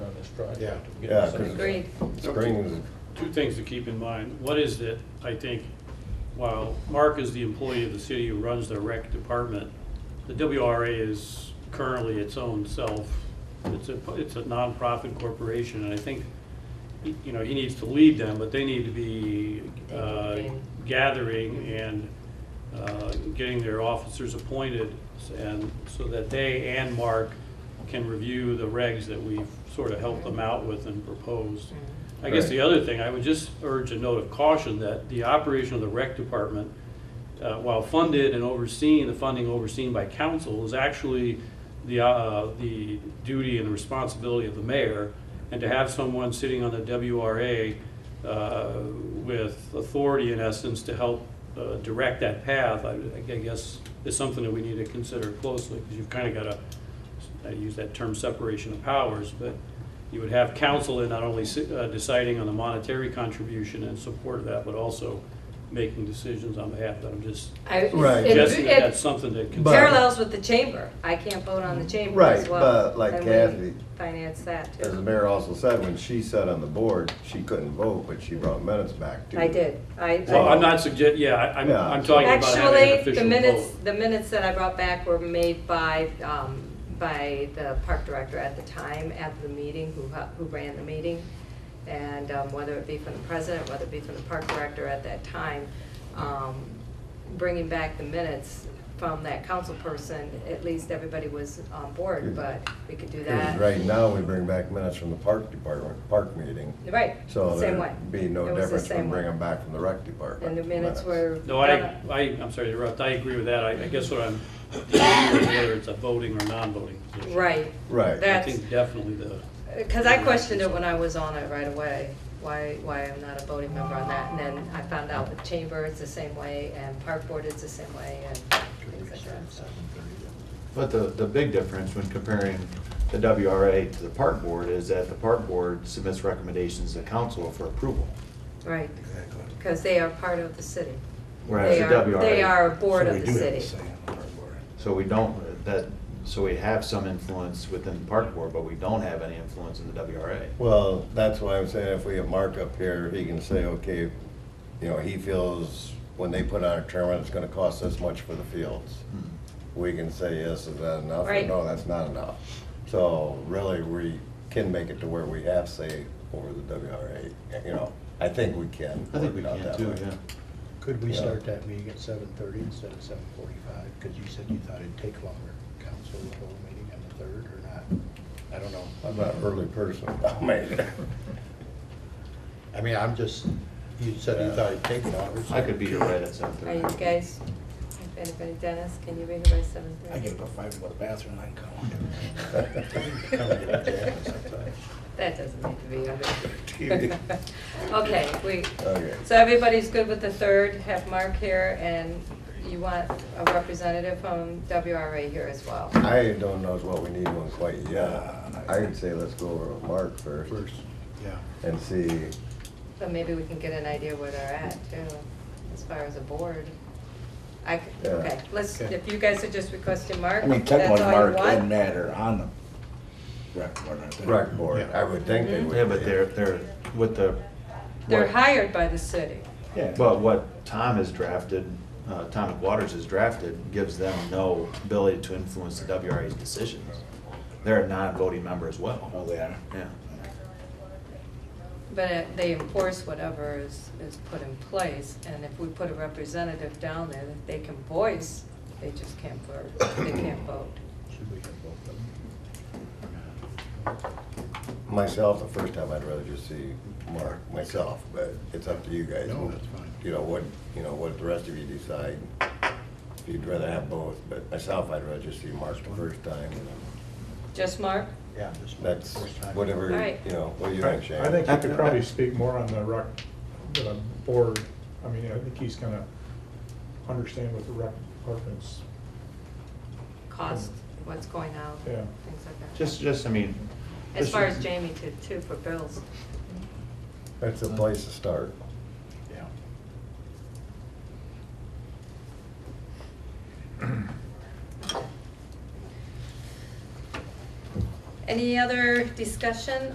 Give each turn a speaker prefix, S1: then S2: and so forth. S1: project.
S2: Yeah.
S1: Get
S3: Yeah,
S1: something
S3: 'cause-
S1: done.
S4: Agreed.
S3: Spring,
S5: Two things to keep in mind. What is that, I think, while Mark is the employee of the city who runs the rec department, the WRA is currently its own self. It's a, it's a nonprofit corporation, and I think, you know, he needs to lead them, but they need to be uh,
S4: They need to
S5: gathering and uh, getting their officers appointed, and so that they and Mark can review the regs that we've sort of helped them out with and proposed. I guess the other thing, I would just urge a note of caution that the operation of the rec department, uh, while funded and overseen, the funding overseen by council is actually the, uh, the duty and responsibility of the mayor. And to have someone sitting on the WRA uh, with authority in essence to help uh, direct that path, I I guess is something that we need to consider closely, because you've kind of got a, I use that term separation of powers, but you would have council in not only si- uh, deciding on the monetary contribution and support of that, but also making decisions on behalf of that. I'm just
S4: I-
S3: Right.
S4: it-
S5: suggesting that
S4: It
S5: that's something to
S3: But-
S5: consider.
S4: parallels with the chamber. I can't vote on the chamber
S3: Right,
S4: as well.
S3: but like
S4: And we
S3: Kathy-
S4: Finance that
S3: as the
S4: too.
S3: mayor also said, when she sat on the board, she couldn't vote, but she brought minutes back too.
S4: I did. I-
S5: Well,
S4: I,
S5: I'm not sugge, yeah, I- I'm,
S3: Yeah.
S5: I'm talking about having an
S4: actually,
S5: official
S4: the minutes,
S5: vote.
S4: the minutes that I brought back were made by, um, by the park director at the time, at the meeting, who, hu- who ran the meeting. And um, whether it be from the president, whether it be from the park director at that time, um, bringing back the minutes from that council person, at least everybody was on board, but we could do
S3: 'Cause
S4: that.
S3: Right now, we bring back minutes from the park department, park meeting,
S4: Right,
S3: so
S4: same way.
S3: there'd be no
S4: It was the
S3: difference
S4: same
S3: from
S4: way.
S3: bringing back from the rec department.
S4: And the minutes were.
S5: No, I,
S4: done.
S5: I, I'm sorry to interrupt, I agree with that. I, I guess what I'm, whether it's a voting or non-voting position.
S4: Right.
S3: Right.
S5: I
S4: That's-
S5: think definitely the.
S4: Because I questioned it when I was on it right away, why, why I'm not a voting member on that. And then I found out with Chamber, it's the same way, and Park Board, it's the same way, and things like that, so.
S2: But the, the big difference when comparing the WRA to the park board is that the park board submits recommendations to council for approval.
S4: Right, because they are part of the city.
S2: Whereas
S4: They
S2: the
S4: are- They
S2: WRA
S4: are a board
S6: So we
S4: of the
S6: do have a
S4: city.
S6: say on the park board.
S2: So we don't, that, so we have some influence within the park board, but we don't have any influence in the WRA.
S3: Well, that's why I'm saying if we have Mark up here, he can say, okay, you know, he feels when they put on a tournament, it's gonna cost this much for the fields.
S2: Hmm.
S3: We can say, yes, is that enough? Or
S4: Right.
S3: No, that's not enough. So really, we can make it to where we have say over the WRA, you know, I think we can.
S2: I think we
S3: work it
S2: can
S3: out
S2: too,
S3: that way.
S2: yeah.
S1: Could we
S3: Yeah.
S1: start that meeting at seven thirty instead of seven forty-five? Because you said you thought it'd take longer. Council would hold a meeting on the third or not? I don't know.
S3: I'm not an early person, I mean,
S1: I mean, I'm just, you said you thought it'd take longer. so-
S2: I could be here right at seven
S4: Are
S2: thirty.
S4: you guys, if anybody, Dennis, can you be here by seven
S6: I
S4: thirty?
S6: get up at five to go to the bathroom, I
S3: I
S6: come.
S4: That doesn't need to be
S3: TV.
S4: under. Okay, we,
S3: Okay.
S4: so everybody's good with the third, have Mark here, and you want a representative from WRA here as well.
S3: I don't know what we need one quite yet. I would say let's go over with Mark first
S1: First, yeah.
S3: and see,
S4: So maybe we can get an idea where they're at too, as far as a board. I, c-
S3: Yeah.
S4: okay, let's,
S1: Okay.
S4: if you guys are just requesting Mark,
S6: I mean,
S4: that's
S6: technically,
S4: all you
S6: Mark and
S4: want.
S6: Matt are on the rec board, aren't they?
S3: rec board, I would think they would.
S2: Yeah, but
S3: be.
S2: they're, they're, with the.
S4: They're
S2: what-
S4: hired by the city.
S6: Yeah.
S2: But what Tom has drafted, uh, Tom Waters has drafted, gives them no ability to influence the WRA's decisions. They're a non-voting member as
S6: Oh,
S2: well.
S6: they are?
S2: Yeah.
S4: But uh, they enforce whatever is, is put in place, and if we put a representative down there that they can voice, they just can't vote, they can't vote.
S1: Should we have both of them?
S3: Myself, the first time I'd rather just see Mark, myself, but it's up to you guys.
S1: No, that's fine.
S3: You know, what, you know, what the rest of you decide. If you'd rather have both, but myself, I'd rather just see Mark the first time. and then
S4: Just Mark?
S1: Yeah. just one
S3: That's
S1: first time.
S3: whatever,
S4: All right.
S3: you know, what do you
S7: I
S3: think, Shane?
S7: I think he could probably speak more on the rec, the board, I mean, I think he's gonna understand what the rec department's,
S4: cost, what's going out,
S7: Yeah.
S4: things like that.
S2: Just, just, I mean.
S4: As
S2: just-
S4: far as Jamie too, too, for bills.
S3: That's a place to start.
S1: Yeah.
S4: Any other discussion